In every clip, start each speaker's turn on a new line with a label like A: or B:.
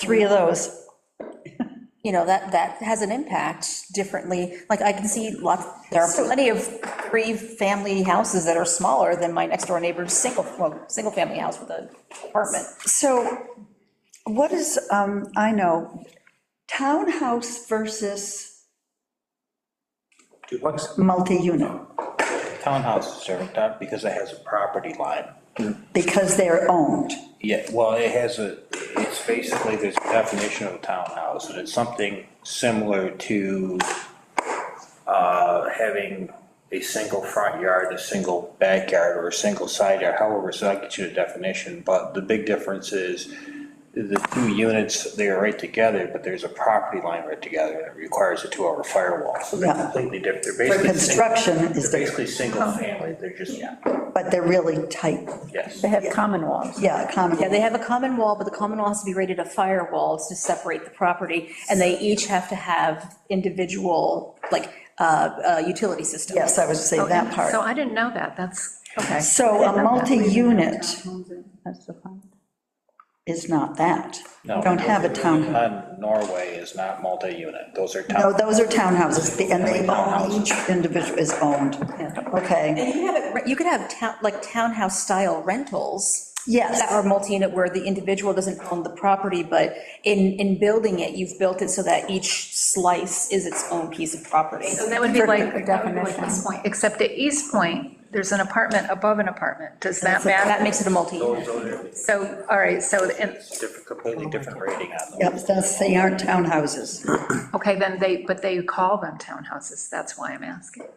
A: three of those.
B: you know, that, that has an impact differently. Like, I can see lots, there are plenty of three-family houses that are smaller than my next-door neighbor's single, well, single-family house with a apartment.
A: So what is, um, I know, townhouse versus
C: Duplex,
A: multi-unit,
C: townhouses are done because it has a property line.
A: because they're owned.
C: Yeah, well, it has a, it's basically, there's a definition of a townhouse, and it's something similar to uh, having a single front yard, a single backyard, or a single side yard, however, so I get you a definition, but the big difference is the two units, they are right together, but there's a property line right together, and it requires a two-hour firewall, so they're
A: Yeah.
C: completely different, they're
A: For
C: basically. single-
A: construction is,
C: They're
A: different,
C: basically single family, they're just,
A: but they're really tight.
C: yes.
D: They have common walls.
A: Yeah, common.
B: Yeah, they have a common wall, but the common wall has to be rated a firewall to separate the property, and they each have to have individual, like, uh, uh, utility systems.
A: Yes, I would say that
D: So
A: part.
D: I didn't know that, that's, okay.
A: So a multi-unit
D: That's the fun.
A: is not that.
C: No,
A: Don't have a
C: those are-
A: town.
C: uh, Norway is not multi-unit, those are
A: No,
C: town,
A: those are townhouses, the- and they own,
C: Townhouses.
A: each individual is owned. Okay,
B: And you have it, you could have town, like townhouse-style rentals.
A: Yes.
B: That are multi-unit where the individual doesn't own the property, but in, in building it, you've built it so that each slice is its own piece of property.
D: So that would be like, that would be like East Point, except at East Point, there's an apartment above an apartment. Does that
B: That
D: matter?
B: makes it a multi-unit.
D: So, all right, so, and,
C: different- completely different rating on them.
A: yep, that's, they aren't townhouses.
D: okay, then they, but they call them townhouses, that's why I'm asking.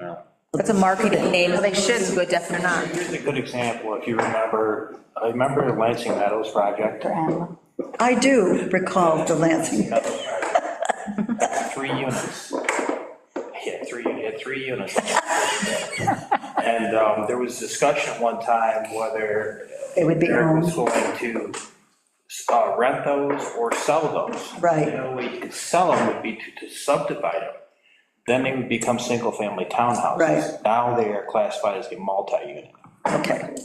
C: No.
B: It's a marketing name.
D: They should,
B: It's a good
D: they're
B: definition.
D: not.
C: Here's a good example, if you remember, I remember the Lansing Meadows project,
A: I do recall the Lansing,
C: three units. Yeah, three, you had three units. And um, there was discussion at one time whether
A: It would be
C: Eric was
A: owned.
C: going to uh, rent those or sell those.
A: Right.
C: The only way you could sell them would be to to subdivide them. Then they would become single-family townhouses.
A: Right.
C: Now they are classified as a multi-unit.
A: okay.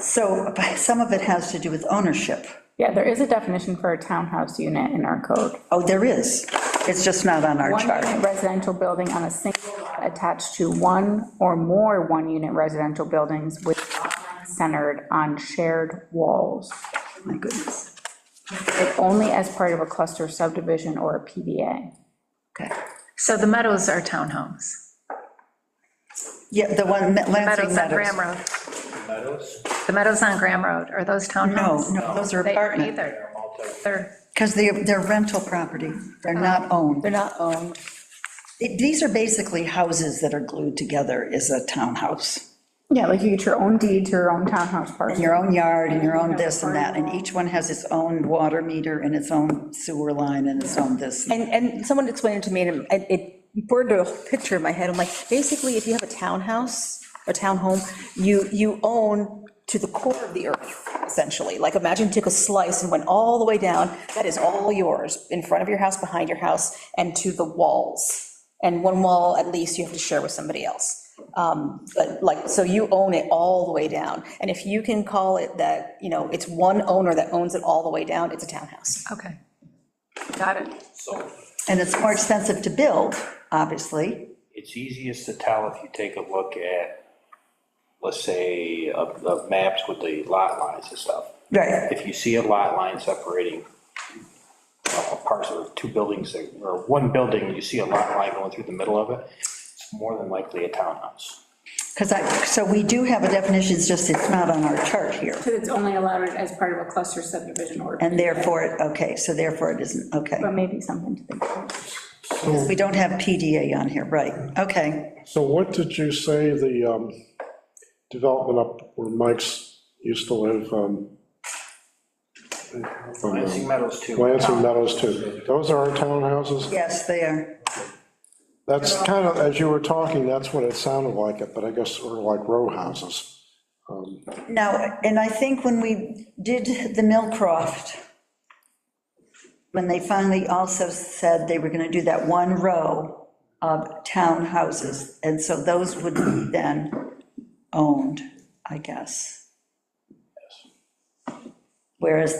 A: So but some of it has to do with ownership.
E: Yeah, there is a definition for a townhouse unit in our code.
A: Oh, there is. It's just not on our
E: One
A: chart.
E: unit residential building on a single lot attached to one or more one-unit residential buildings with lot lines centered on shared walls,
A: My goodness.
E: but only as part of a cluster subdivision or a PDA.
A: Okay.
D: So the Meadows are townhomes.
A: Yeah, the one, Lansing
D: Meadows on
A: Meadows.
D: Graham Road.
C: Meadows?
D: The Meadows on Graham Road, are those
A: No,
D: townhomes?
A: no, those are
D: They aren't
A: apartment,
D: either. They're,
A: because they're, they're rental property. They're not owned.
B: They're not owned.
A: It- These are basically houses that are glued together is a townhouse.
E: Yeah, like you get your own deed to your own townhouse
A: And
E: parcel.
A: Your own yard and your own this and that, and each one has its own water meter and its own sewer line and its own this.
B: And, and someone explained it to me, and it- it burned a picture in my head, I'm like, basically, if you have a townhouse, a townhome, you, you own to the core of the earth, essentially, like, imagine you took a slice and went all the way down, that is all yours, in front of your house, behind your house, and to the walls, and one wall at least you have to share with somebody else. Um, But like, so you own it all the way down, and if you can call it that, you know, it's one owner that owns it all the way down, it's a townhouse.
D: okay. Got it.
C: So
A: And it's more expensive to build, obviously.
C: it's easiest to tell if you take a look at, let's say, of, of maps with the lot lines and stuff.
A: Right.
C: If you see a lot line separating uh, a parcel of two buildings, that- or one building, you see a lot line going through the middle of it, it's more than likely a townhouse.
A: Because I, so we do have a definition, it's just it's not on our chart here.
E: But it's only allowed as part of a cluster subdivision or.
A: And therefore, it- okay, so therefore it isn't, okay.
E: But maybe something to think about.
A: We don't have PDA on here, right, okay.
F: So what did you say the um, development up where Mike's used to live? um, from, um,
C: Lansing Meadows too.
F: Lansing Meadows too. Those are our townhouses?
A: Yes, they are.
F: That's kind of, as you were talking, that's what it sounded like it, but I guess sort of like row houses.
A: Now, and I think when we did the Millcroft, when they finally also said they were going to do that one row of townhouses, and so those would be then owned, I guess. Whereas